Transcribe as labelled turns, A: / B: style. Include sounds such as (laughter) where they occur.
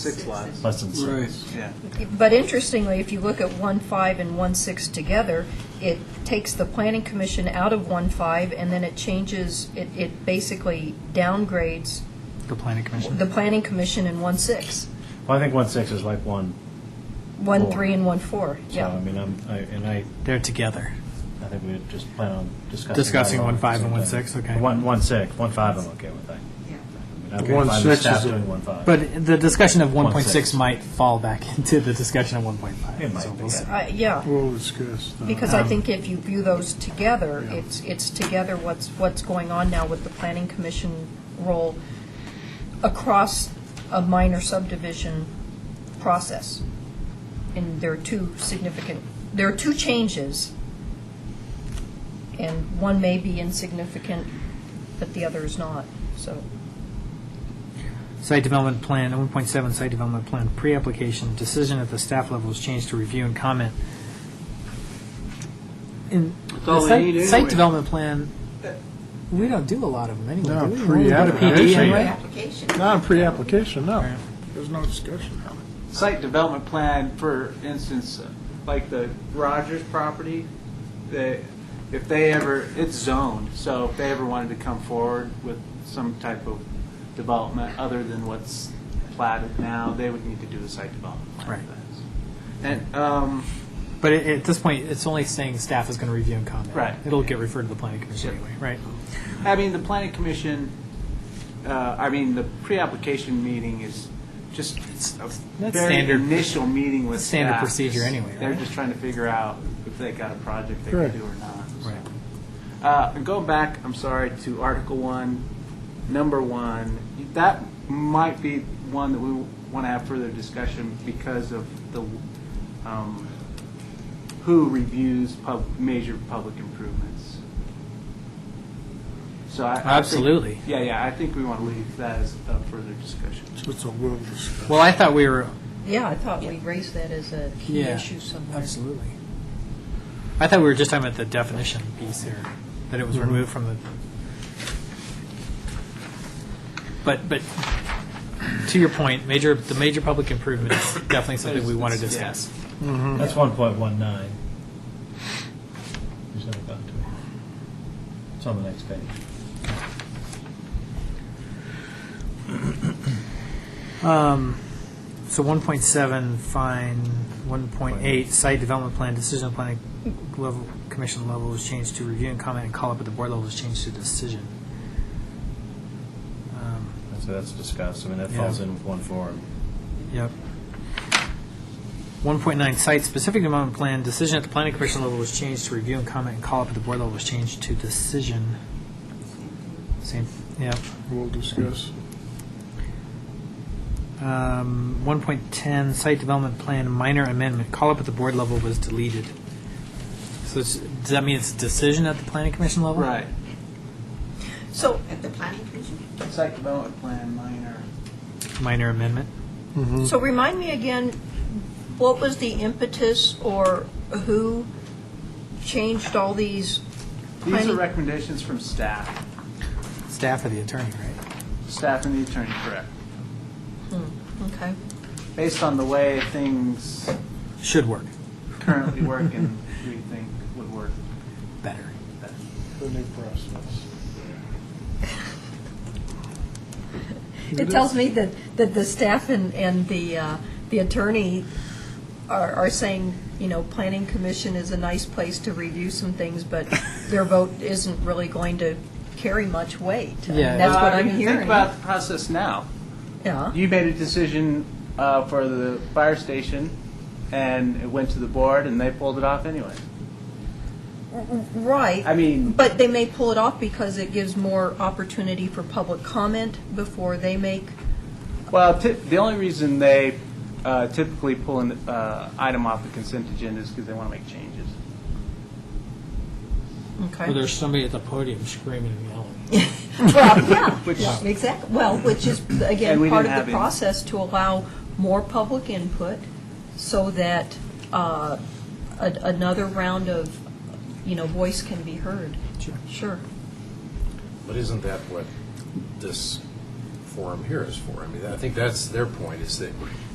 A: Six lots.
B: Less than six.
A: Yeah.
C: But interestingly, if you look at one five and one six together, it takes the planning commission out of one five, and then it changes, it, it basically downgrades
D: The planning commission.
C: the planning commission in one six,
B: Well, I think one six is like one,
C: one
B: Four.
C: three and one four,
B: so I
C: yeah.
B: mean, I'm, I, and I,
D: They're together.
B: I think we just plan on discussing.
D: Discussing
B: that all
D: one
B: at
D: five
B: the
D: and
B: same
D: one
B: time.
D: six, okay.
B: One, one six, one five I'm okay with, I. I mean,
E: The one
B: I'm fine with
E: six
B: staff
E: is a-
B: doing one five.
D: But the discussion of one point
B: 1.6.
D: six might fall back (laughs) into the discussion of one point five.
B: It might be, yeah.
C: I- Uh, Yeah,
E: We'll discuss. that.
C: because
D: Uh-huh.
C: I think if you view those together, it's, it's together what's, what's going on now with the planning commission role across a minor subdivision process. And there are two significant, there are two changes, and one may be insignificant, but the other is not, so.
D: Site development plan, one point seven, site development plan, pre-application, decision at the staff level is changed to review and comment. In
A: all
D: the
A: they
D: site-
A: need
D: Site
A: anyway.
D: development plan, we don't do a lot of them
E: No,
D: anyway. do we?
E: pre-
D: We don't do
E: yeah,
D: PD
E: yeah.
D: anyway.
E: Not a pre-application, no. There's no discussion on it.
A: Site development plan, for instance, like the Rogers property, they, if they ever, it's zoned, so if they ever wanted to come forward with some type of development other than what's platted now, they would need to do a site development plan.
D: Right.
A: And, um,
D: But at- at this point, it's only saying staff is going to review and comment.
A: Right.
D: It'll get referred to the planning commission anyway, right?
A: I mean, the planning commission, uh, I mean, the pre-application meeting is just a
D: that's
A: very
D: standard-
A: initial meeting with
D: standard
A: staff.
D: procedure anyway,
A: They're
D: right?
A: just trying to figure out if they got a project they can
E: Correct.
A: do or not. Uh, and Going back, I'm sorry, to Article 1, Number 1, that might be one that we want to have further discussion because of the, um, who reviews pub, major public improvements. So I. I think-
D: Absolutely.
A: Yeah, yeah, I think we want to leave that as a further discussion.
E: So it's a will discussion.
D: Well, I thought we were
C: Yeah, I thought we raised that as a key
D: Yeah,
C: issue somewhere.
D: Absolutely. I thought we were just talking about the definition piece here, that it was removed from the. But, but, to your point, major, the major public improvement is definitely something we want to
A: It's-
D: discuss.
B: That's one point one nine. There's never gotten to it. It's on the next page.
D: Um, So 1.7, fine, 1.8, site development plan, decision planning level, commission level was changed to review and comment and call up at the board level was changed to decision. Um,
B: And So that's discussed, I mean, that
D: Yeah.
B: falls in with one four.
D: Yep. 1.9, site-specific development plan, decision at the planning commission level was changed to review and comment, and call up at the board level was changed to decision. Same, yep.
E: We'll discuss.
D: Um, 1.10, site development plan, minor amendment, call up at the board level was deleted. So it's- does that mean it's decision at the planning commission level?
A: Right.
C: So,
F: At the planning commission?
A: Site development plan, minor.
D: Minor amendment.
C: So remind me again, what was the impetus or who changed all these?
A: These are
C: Planning-
A: recommendations from staff,
D: Staff or the attorney, right?
A: staff and the attorney, correct?
C: Okay.
A: Based on the way things
D: Should work
A: currently work and we think would work
D: better.
A: better.
E: The new process.
C: It tells me that, that the staff and, and the, uh, the attorney are, are saying, you know, planning commission is a nice place to review some things, but their vote isn't really going to carry much weight. I mean,
D: Yeah.
C: That's what
A: Uh,
C: I'm
A: I mean,
C: hearing.
A: Think about the process now.
C: Yeah.
A: You made a decision uh, for the fire station, and it went to the board, and they pulled it off anyway.
C: Right.
A: I mean-
C: But they may pull it off because it gives more opportunity for public comment before they make
A: Well, ti- the only reason they uh, typically pull an uh, item off the consent agenda is because they want to make changes.
D: Or
C: Okay.
D: there's somebody at the podium screaming and yelling.
C: Well, yeah,
A: Which-
C: yeah, exactly. Well, which is,
A: And
C: again,
A: we
C: part
A: didn't
C: of
A: have
C: the
A: any.
C: process to allow more public input so that uh, a- another round of, you know, voice can be heard. Sure.
G: But isn't that what this
F: forum here is for. I mean, I think that's their point, is that